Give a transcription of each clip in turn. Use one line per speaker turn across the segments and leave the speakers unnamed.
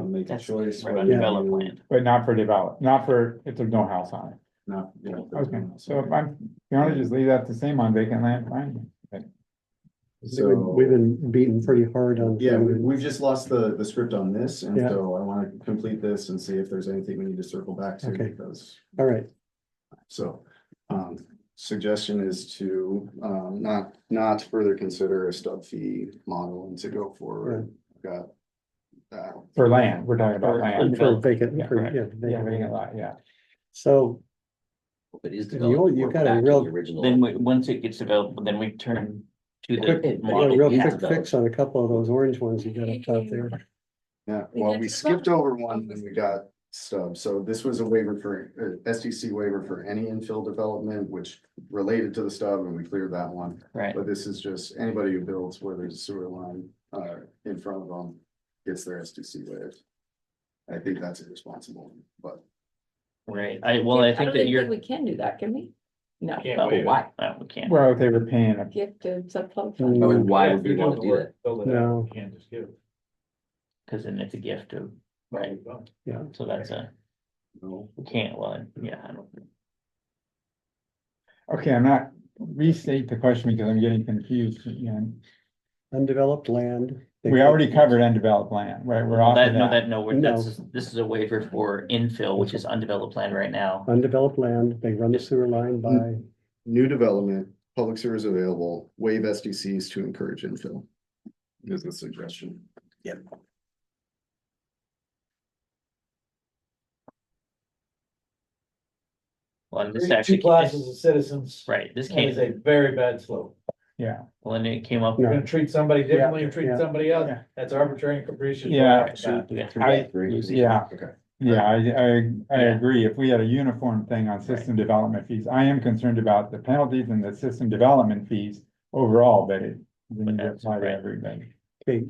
make a
That's-
choice.
Right,
whether-
develop land.
But not for develop, not for, if there's no house on it.
Not, yeah.
Okay, so if I'm, if you wanna just leave that the same on vacant land, fine.
We've-
So,
We've been beaten pretty hard on.
yeah, we, we've just lost the, the script on this, and
Yeah.
so I wanna complete this and see if there's anything we need to circle back to,
Okay.
because,
All right,
so. Um, suggestion is to, um, not, not further consider a stub fee model and to go forward. Got that.
For land, we're talking about
For-
land.
for
Sure.
vacant,
Yeah,
for-
correct.
yeah,
Yeah,
vacant.
vacant lot, yeah.
So,
It is
And you-
developed.
you've
we're
got a
back to the
real-
Original.
Then we, once it gets developed, then we turn to
Quick-
the
It-
I got a
model.
real
Yeah.
quick fix on a couple of those orange ones you got up top there.
Yeah,
We
well,
got
we
to the
skipped
bottom.
over one when we got stub, so this was a waiver for, uh, SDC waiver for any infill development, which related to the stub, and we cleared that one.
Right,
But this is just anybody who builds where there's a sewer line, uh, in front of them, gets their SDC waived. I think that's irresponsible, but
right. I, well, I think
don't
that you're.
We can do that, can we? No,
Can't
Oh,
waive it.
why? No, we can't.
Well, if they were paying a
give to
Mm.
subclub. fund.
But Why
Yeah,
would
if you're
we
doing
want
the
to do
work,
that?
Build it
No.
out, you can't just give it.
Cause then it's a gift of, right,
Right, done.
Yeah,
so that's a,
no.
we can't, well, yeah, I don't.
Okay, I'm not, restate the question because I'm getting confused again.
undeveloped land.
We already covered undeveloped land, right? We're off
That,
of
no,
that.
that, no, we're- that's, this is a waiver for infill, which is undeveloped land right now.
Undeveloped land, they run the sewer line by,
New development, public sewer is available, waive SDCs to encourage infill. Is the suggestion.
Well, and this
Three-
actually.
Two classes of citizens.
Right, this
That is
came,
a very bad slope.
Yeah,
well, and it came up.
No.
You're gonna treat somebody differently, and
yeah,
treat somebody else.
yeah.
That's arbitrary and capricious. right
Yeah.
off the bat.
We got three-
I,
Three.
yeah,
Okay.
yeah, I, I, I
Yeah.
agree. If we had a uniform thing on system development fees, I am concerned about the penalties and the system development fees overall, but it. We need to
that's
apply to
right.
everybody.
okay,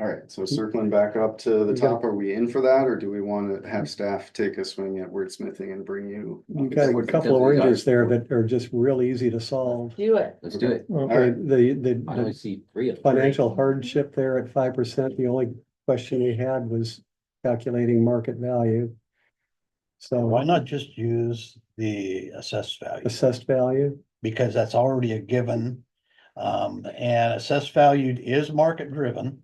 All right,
Mm-hmm.
so circling back up to the top, are we in for that, or do we want to have staff take a swing at wordsmithing and bring you?
you got a couple of oranges there that are just real easy to solve.
Do it.
Let's do it.
Okay,
right.
the, the-
I
the
only see three of them.
financial hardship there at five percent, the only question we had was calculating market value. So.
Why not just use the assessed value?
assessed value.
Because that's already a given. Um, and assessed value is market driven.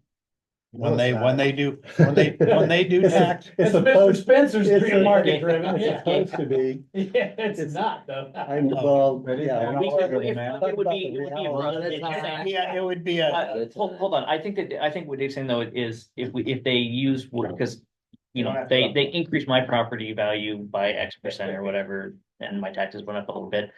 When
No,
they,
it's not.
when they do, when they, when they do
It's a-
tax,
It's
That's Mr.
supposed,
Spencer's
it's a-
free market driven.
it's
Yeah,
supposed to be,
it's not though.
I'm, well,
But it-
yeah.
and also the man-
Talk about the reality.
yeah, it would be a,
Uh, Hold, hold on, I think that, I think what Dave's saying though is if we, if they use, because. You know, they, they increased my property value by X percent or whatever, and my taxes went up a little bit.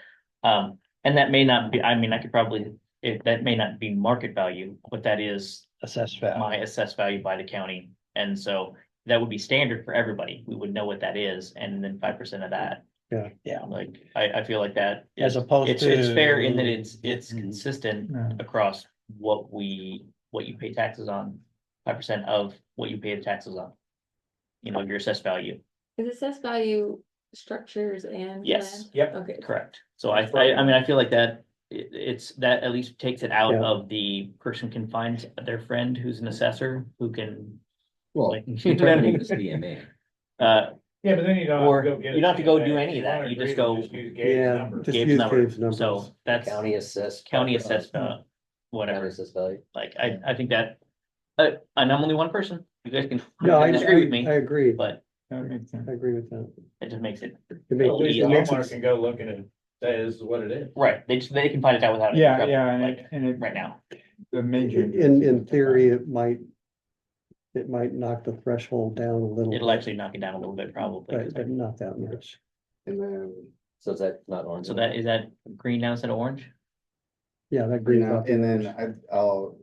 Um, and that may not be, I mean, I could probably, it, that may not be market value, but that is
assessed value.
my assessed value by the county. And so that would be standard for everybody, we would know what that is, and then five percent of that.
Yeah.
Yeah, like, I, I feel like that.
As
is-
opposed
It's, it's fair in that
to-
it's, it's
Mhm.
consistent
Yeah.
across what we, what you pay taxes on, five percent of what you pay the taxes on. You know, your assessed value,
Is assessed value structures and?
Yes.
land?
Yep.
Okay.
correct, so I, I, I mean, I feel like that, it, it's, that at least takes it out
Yeah.
of the person can find their friend who's an assessor, who can.
Well,
like,
you turn it into DMA.
Uh,
Yeah, but then you don't. have to
Or
go get
you don't have to
it.
go do
If
any of that.
wanna
You just
agree,
go-
use Gabe's
Yeah,
number.
just
Gabe's
use
number.
Gabe's numbers.
so that's
County assessed.
county
uh,
assessed, uh,
County
whatever,
assessed value.
like, I, I think that, uh, and I'm only one person, you guys can
No, I, I,
disagree with me,
I agree,
but
That makes sense.
I agree with that.
it just makes it
It
At least
makes- it makes
Walmart
it-
can go look at it, and say this is what it is.
Right, they just, they can find it out without. it,
Yeah,
right,
yeah, and
like,
it, and it,
Right now,
the major.
In, in theory, it might, it might knock the threshold down a little.
it'll
bit,
actually knock it down a little bit probably,
But,
'cause
but
I-
not that much.
And then,
So is that not orange?
so that, is that green now instead of orange?
Yeah, that
right
green.
now,
up.
and then I, I'll.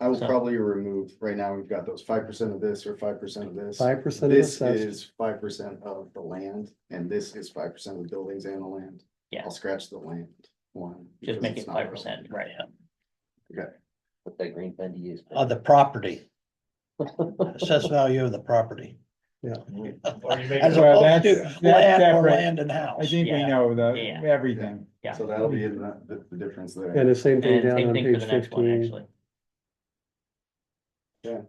I will
So-
probably remove, right now, we've got those five percent of this or five percent of this.
Five percent of
This
assessed,
is five percent of the land, and this is five percent of the buildings and the land.
Yeah.
I'll scratch the land one.
Just
because
make
it's
it
not
five
relevant.
percent, right, yeah.
What that green pen to use.
Oh,
Of the property. Assessed value of the property.
Or you make
As
it-
Well, that's-
opposed to
that's
land or
separate.
land and house.
I think we
Yeah.
know the,
Yeah.
everything.
Yeah.
So that'll be in the, the- the difference there.
and the same thing
And
down
same
on
thing for
page
the next one,
fifteen.
actually.